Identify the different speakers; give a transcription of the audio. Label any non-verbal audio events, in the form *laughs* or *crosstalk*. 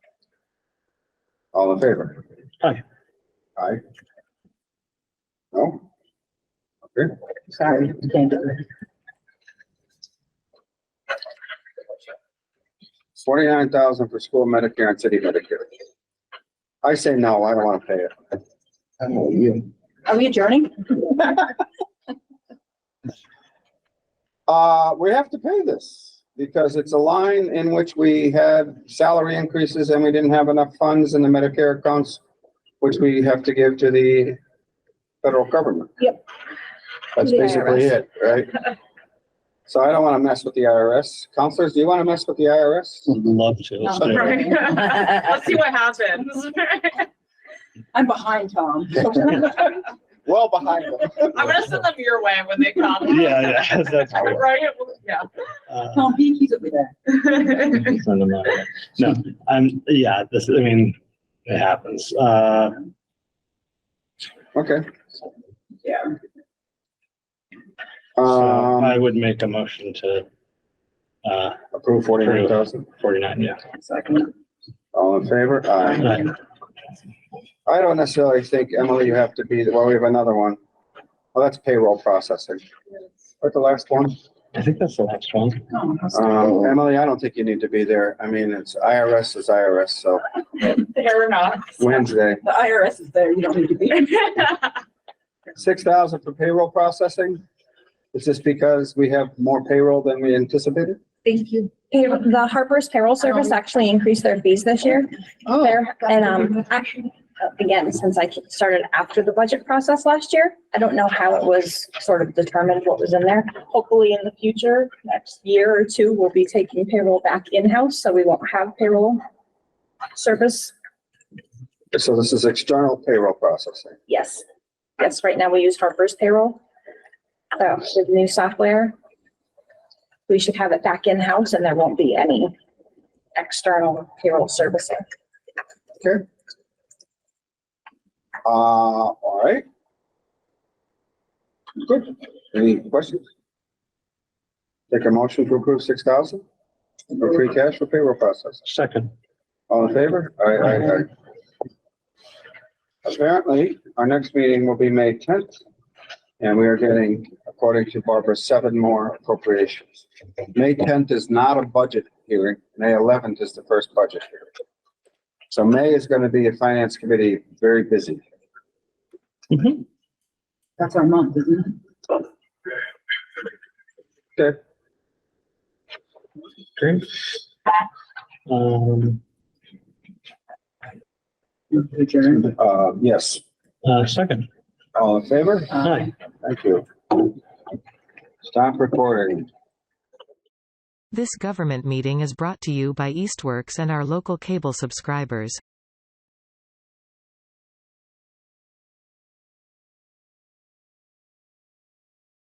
Speaker 1: All in favor?
Speaker 2: Aye.
Speaker 1: Aye. No? Okay,
Speaker 3: Sorry, thank you.
Speaker 1: forty-nine thousand for school Medicare and city Medicare. I say no, I don't wanna pay it. I know you.
Speaker 3: Are we adjourning?
Speaker 1: *laughs* Uh, we have to pay this because it's a line in which we had salary increases and we didn't have enough funds in the Medicare accounts, which we have to give to the federal government.
Speaker 3: Yep.
Speaker 1: That's
Speaker 3: The
Speaker 1: basically
Speaker 3: IRS.
Speaker 1: it, right? So I don't wanna mess with the IRS. Counselors, do you wanna mess with the IRS?
Speaker 2: Would love to.
Speaker 3: No.
Speaker 2: So-
Speaker 4: Right. *laughs* Let's see what happens. *laughs*
Speaker 3: I'm behind Tom.
Speaker 1: Well behind them.
Speaker 4: I'm gonna send them your way when they come.
Speaker 2: *laughs* Yeah, *laughs* yeah,
Speaker 4: *laughs*
Speaker 2: that's cool.
Speaker 4: Right,
Speaker 2: Uh,
Speaker 3: Tom Beekey's over there.
Speaker 4: yeah.
Speaker 2: send them out. No, I'm, yeah, this, I mean, it happens. Uh,
Speaker 1: Okay.
Speaker 3: Yeah.
Speaker 2: so I
Speaker 1: Um,
Speaker 2: would make a motion to, uh,
Speaker 1: approve forty-nine thousand.
Speaker 2: forty-nine, yeah.
Speaker 3: Second.
Speaker 1: All in favor? Aye.
Speaker 2: Aye.
Speaker 1: I don't necessarily think, Emily, you have to be, well, we have another one. Well, that's payroll processing. What's the last one?
Speaker 2: I think that's the last one.
Speaker 3: Oh, I'm
Speaker 1: Um,
Speaker 3: sorry.
Speaker 1: Emily, I don't think you need to be there. I mean, it's IRS is IRS, so
Speaker 4: *laughs* Fair enough.
Speaker 1: Wednesday.
Speaker 3: The IRS is there, you don't need to be.
Speaker 1: Six thousand for payroll processing? Is this because we have more payroll than we anticipated?
Speaker 3: Thank you.
Speaker 5: Pay- The Harper's payroll service actually increased their fees this year there. And, um, I- again, since I started after the budget process last year, I don't know how it was sort of determined what was in there. Hopefully in the future, next year or two, we'll be taking payroll back in-house, so we won't have payroll service.
Speaker 1: So this is external payroll processing.
Speaker 5: Yes. Yes, right now we use Harper's payroll. So with new software, we should have it back in-house and there won't be any external payroll servicing.
Speaker 1: Okay. Uh, all right. Good. Any questions? Take a motion to approve six thousand for free cash for payroll process.
Speaker 2: Second.
Speaker 1: All in favor? Aye, aye, aye. Apparently, our next meeting will be May tenth, and we are getting, according to Barbara, seven more appropriations. May tenth is not a budget hearing. May eleventh is the first budget hearing. So May is gonna be a finance committee, very busy.
Speaker 3: That's our month, isn't it?
Speaker 1: Okay.
Speaker 2: Great. Um,
Speaker 3: Move to adjourn.
Speaker 1: Uh, yes,
Speaker 2: uh, second.
Speaker 1: all in favor?
Speaker 3: Uh,
Speaker 2: Aye.
Speaker 1: Thank you. Stop recording.
Speaker 6: This government meeting is brought to you by Eastworks and our local cable subscribers.